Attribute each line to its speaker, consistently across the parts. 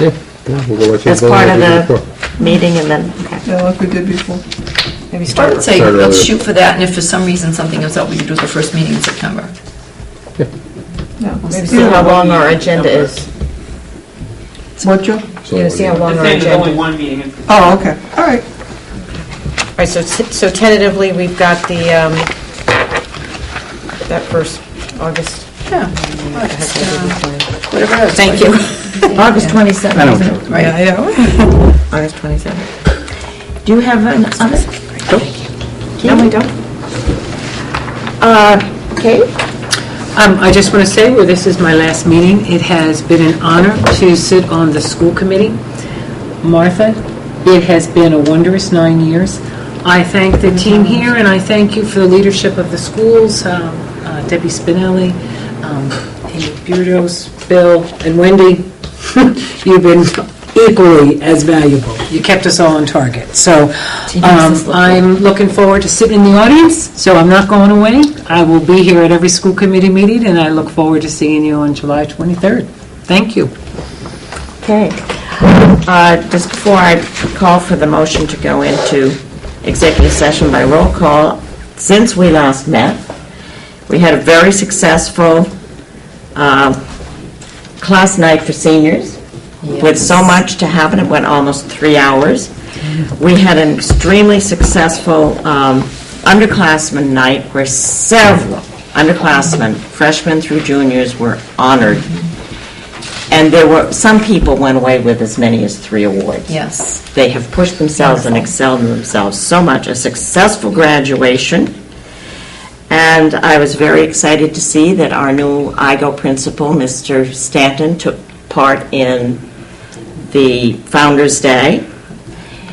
Speaker 1: Yeah, yeah, we'll go right to
Speaker 2: That's
Speaker 1: the vote
Speaker 2: part of
Speaker 1: like we did
Speaker 2: the
Speaker 1: before.
Speaker 2: meeting and then, okay.
Speaker 3: Yeah, like we did before.
Speaker 2: Maybe
Speaker 4: I
Speaker 2: start
Speaker 4: would
Speaker 2: with
Speaker 4: say,
Speaker 1: Start
Speaker 4: let's
Speaker 1: earlier.
Speaker 4: shoot for that, and if for some reason something comes up, we could do it the first meeting in September.
Speaker 3: Yeah, maybe
Speaker 2: See how
Speaker 3: so.
Speaker 2: long our agenda is.
Speaker 3: What, Joe?
Speaker 1: So
Speaker 2: You know, see how long
Speaker 5: It's
Speaker 2: our
Speaker 5: there's only
Speaker 2: agenda.
Speaker 5: one meeting in
Speaker 3: Oh, okay, all right.
Speaker 2: All right, so t- so tentatively, we've got the, um, that first, August.
Speaker 4: Yeah. Whatever.
Speaker 2: Thank you. August 27th, isn't it?
Speaker 4: Right.
Speaker 3: yeah.
Speaker 2: August 27th. Do you have an oven? No, we don't. Uh, Kate?
Speaker 6: Um, I just want to say, where this is my last meeting, it has been an honor to sit on the school committee. Martha, it has been a wondrous nine years. I thank the team here, and I thank you for the leadership of the schools, um, uh, Debbie Spinelli, um, Amy Burdos, Bill, and Wendy. You've been equally as valuable. You kept us all on target. So um, I'm looking forward to sitting in the audience, so I'm not going away. I will be here at every school committee meeting, and I look forward to seeing you on July 23rd. Thank you.
Speaker 2: Okay. Uh, Just before I call for the motion to go into executive session by roll call, since we last met, we had a very successful uh, class night for seniors with so much to happen. It went almost three hours. We had an extremely successful um, underclassmen night where several underclassmen, freshmen through juniors, were honored. And there were, some people went away with as many as three awards.
Speaker 4: Yes.
Speaker 2: They have pushed themselves and excelled in themselves so much. A successful graduation. And I was very excited to see that our new IGO principal, Mr. Stanton, took part in the Founder's Day.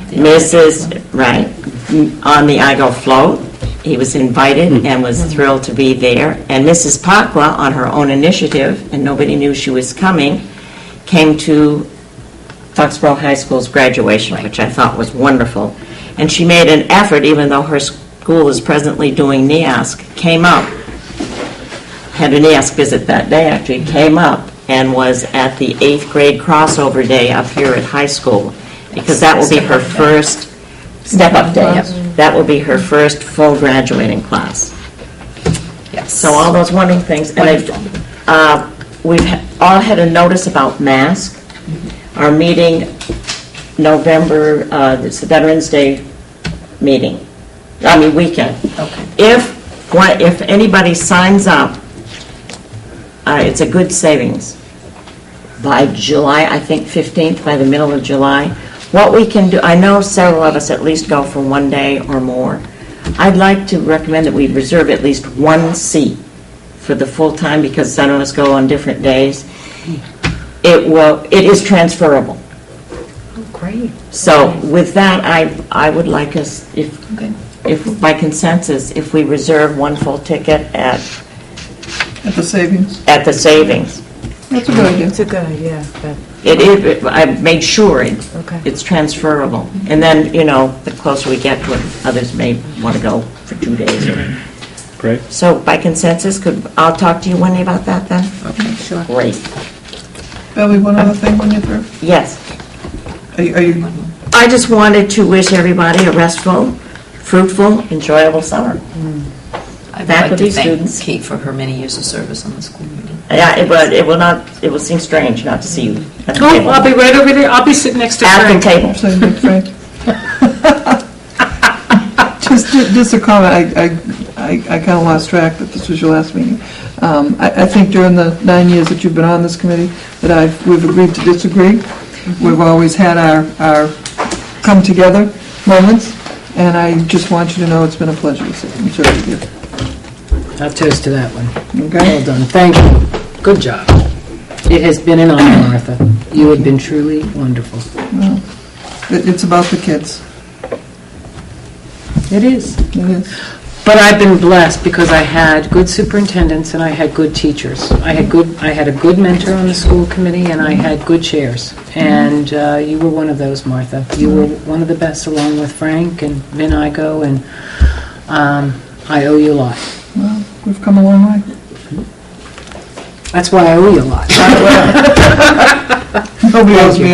Speaker 2: Mrs., right, m- on the IGO float. He was invited and was thrilled to be there. And Mrs. Pakwa, on her own initiative, and nobody knew she was coming, came to Foxborough High School's graduation, which I thought was wonderful. And she made an effort, even though her school is presently doing E NEASC, came up, had a NEASC visit that day, actually, came up and was at the eighth grade crossover day up here at high school, because that will be her first step-up day. That will be her first full graduating class.
Speaker 4: Yes.
Speaker 2: So all those wonderful things. And I've, uh, we've ha- all had a notice about masks. Our meeting, November, uh, it's the Veterans Day meeting, I mean, weekend.
Speaker 4: Okay.
Speaker 2: If, one- if anybody signs up, uh, it's a good savings by July, I think 15th, by the middle of July. What we can do, I know several of us at least go for one day or more. I'd like to recommend that we reserve at least one seat for the full time because some of us go on different days. It will, it is transferable.
Speaker 4: Great.
Speaker 2: So with that, I, I would like us, if,
Speaker 4: Okay.
Speaker 2: if by consensus, if we reserve one full ticket at,
Speaker 3: At the savings.
Speaker 2: at the savings.
Speaker 3: That's a good idea.
Speaker 6: a good idea, but...
Speaker 2: It is, I made sure it-
Speaker 6: Okay.
Speaker 2: it's transferable. And then, you know, the closer we get to it, others may want to go for two days.
Speaker 7: Great.
Speaker 2: So by consensus, could, I'll talk to you Wendy about that then?
Speaker 4: Okay, sure.
Speaker 2: Great,
Speaker 3: Billy, one other thing when you're through.
Speaker 2: yes.
Speaker 3: Are you- Are you,
Speaker 2: I just wanted to wish everybody a restful, fruitful, enjoyable summer.
Speaker 4: I'd like
Speaker 2: Faculty,
Speaker 4: to thank
Speaker 2: students.
Speaker 4: Kate for her many years of service on the school committee.
Speaker 2: Yeah, it will, it will not, it will seem strange not to see you at the
Speaker 6: Oh, I'll be
Speaker 2: table.
Speaker 6: right over there. I'll be sitting next to
Speaker 2: At the
Speaker 6: Frank.
Speaker 2: table.
Speaker 3: saying that, Frank? Just, ju- just a comment, I, I, I kind of lost track that this was your last meeting. Um, I, I think during the nine years that you've been on this committee, that I've, we've agreed to disagree.
Speaker 6: Mm-hmm.
Speaker 3: We've always had our, our come-together moments, and I just want you to know it's been a pleasure to sit and serve with you.
Speaker 6: I'll toast to that one. Well
Speaker 3: Okay.
Speaker 6: done, thank you. Good job. It has been an honor, Martha. You have been truly wonderful.
Speaker 3: It- It's about the kids.
Speaker 6: It is.
Speaker 3: It is.
Speaker 6: But I've been blessed because I had good superintendents and I had good teachers. I had good, I had a good mentor on the school committee and I had good chairs. And uh, you were one of those, Martha. You were one of the best along with Frank and Vin Igo and um, I owe you a lot.
Speaker 3: Well, we've come a long way.
Speaker 6: That's why I owe you a lot.
Speaker 3: Nobody owes me